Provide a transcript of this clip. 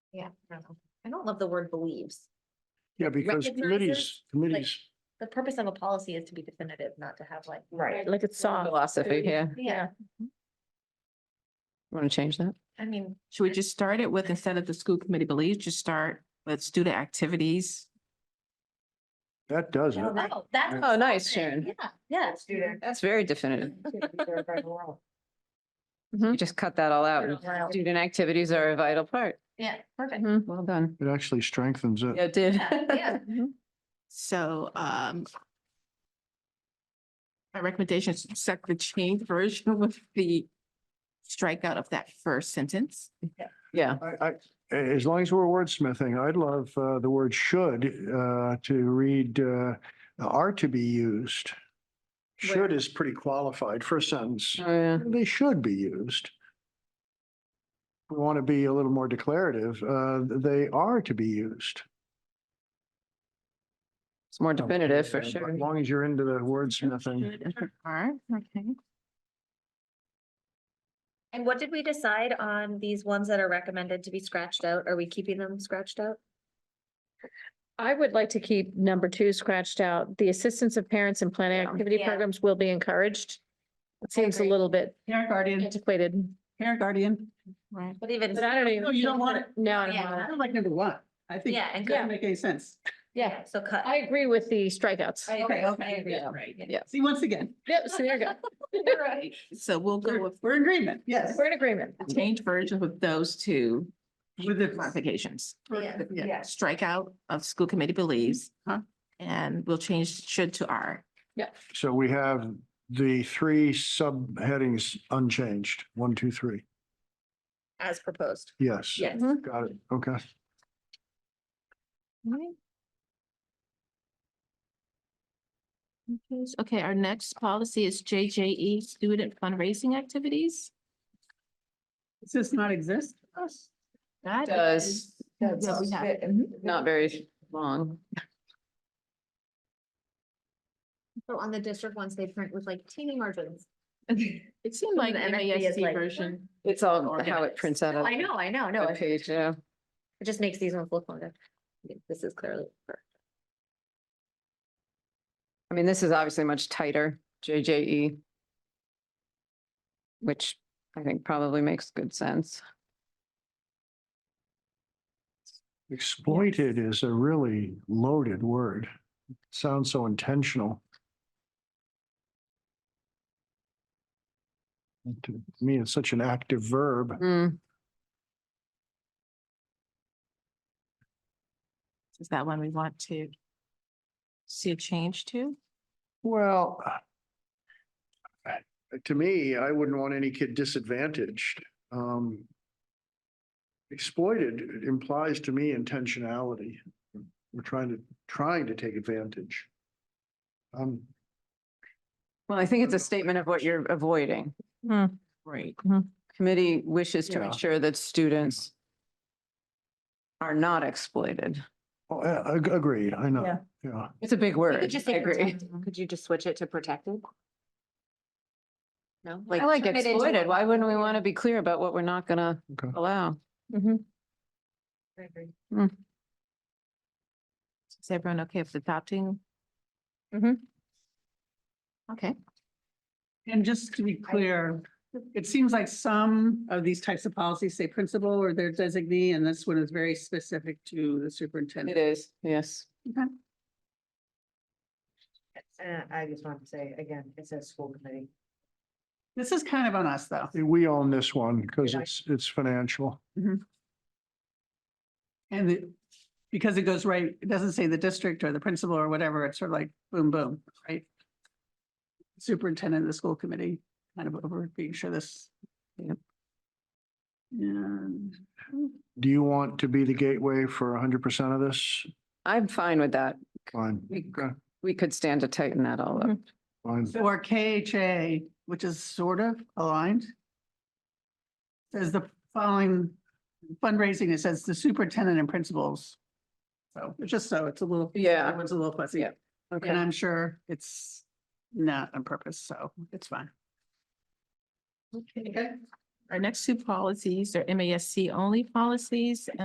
Yeah, I don't know. I don't love the word believes. Yeah, because Recognizes, committees, committees, The purpose of a policy is to be definitive, not to have like. Right. Like it's song philosophy, yeah. Yeah, Want to change that? I mean, Should we just start it with, instead of the school committee believes, just start with student activities? that does it. no, that- that's. Oh, nice, something. Sharon. Yeah, yeah. Student. That's very definitive. Right, You just cut that all out. Wow. Student activities are a vital part. Yeah, perfect. Mhm, Well done. It actually strengthens Yeah, it. It did. Yeah, yeah. Mhm. So, um, my recommendation is to set the change version with the strikeout of that first sentence. Yeah, I, I, a- as long as we're wordsmithing, I'd love, uh, the word should, uh, to read, uh, are to be used. Should is pretty qualified for a sentence. Oh, yeah. They should be used. We want to be a little more declarative. Uh, they are to be used. It's Oh, more definitive for Uh, As sure. long as you're into the wordsmithing. Alright, okay. And what did we decide on these ones that are recommended to be scratched out? Are we keeping them scratched out? I would like to keep number two scratched out. The assistance of parents in planning activity Yeah. programs will be encouraged. It seems a agree. little bit Parent guardian, antiquated, parent guardian. Right. But even, but I don't even. No, you don't want it. No, I don't Yeah. want it. I don't like number one. I think yeah, it and, doesn't cut- make any sense. yeah, so cut. I agree with the strikeouts. agree, I agree. Yeah, Right. Yeah. See, once again, Yep, so there you go. So we'll go with we're in agreement, yes. We're in agreement. the change version with those two With the, modifications. Yeah. yeah, Strikeout of school committee believes. Huh. And we'll change should to are. So we have the three subheadings unchanged, one, two, three. As proposed. Mm-hmm. Yes. Yes. Got it. Okay. Okay, our next policy is JJE, student fundraising activities. does this not exist? That Does, is- Yeah, we have. mm-hmm. not very long. So on the district ones, they print with like teeny margins. It seemed like The NISD is NASD like- version. It's all how it Organized. prints out. No, on I know, I know, no, the it Page, yeah. it just makes these ones look longer. This is clearly. for- I mean, this is obviously much tighter, JJE. Which I think probably makes good sense. Exploited is a really loaded word. Sounds so intentional. And To me, it's such an active verb. Hmm. Is that one we want to see a change to? Well, to me, I wouldn't want any kid disadvantaged. Um, Exploited implies to me intentionality. We're trying to, trying to take advantage. Um, Well, I think it's a statement of what you're avoiding. Right. Committee wishes to Yeah. ensure that students are not exploited. oh, yeah, ag- agreed, I know, yeah. It's a big word. I agree. Could you just switch it to protected? No? I like turn it into exploited. a- Why wouldn't we want to be clear about what we're not gonna Okay. allow? Is everyone okay with adopting? Mm-hmm. Mhm. Okay, And just to be clear, it seems like some of these types of policies say principal or their designee, and this one is very specific to the It superintendent. is, yes. I just want to say again, it says school committee. This is kind of on us, though. We own this one because it's, it's financial. And the, because it goes right, it doesn't say the district or the principal or whatever, it's sort of like boom, boom, right? Superintendent of the school committee, kind of over being sure this. Yep. And Do you want to be the gateway for hundred percent of this? I'm fine with that. Fine, Okay, We could stand to tighten that all up. fine. or KHA, which is sort of aligned. Says the following fundraising, it says the superintendent and principals. So it's just so, it's a little. Yeah. Everyone's a little fuzzy. Yeah. And I'm sure it's not on purpose, so it's fine. our next two policies are MASC only policies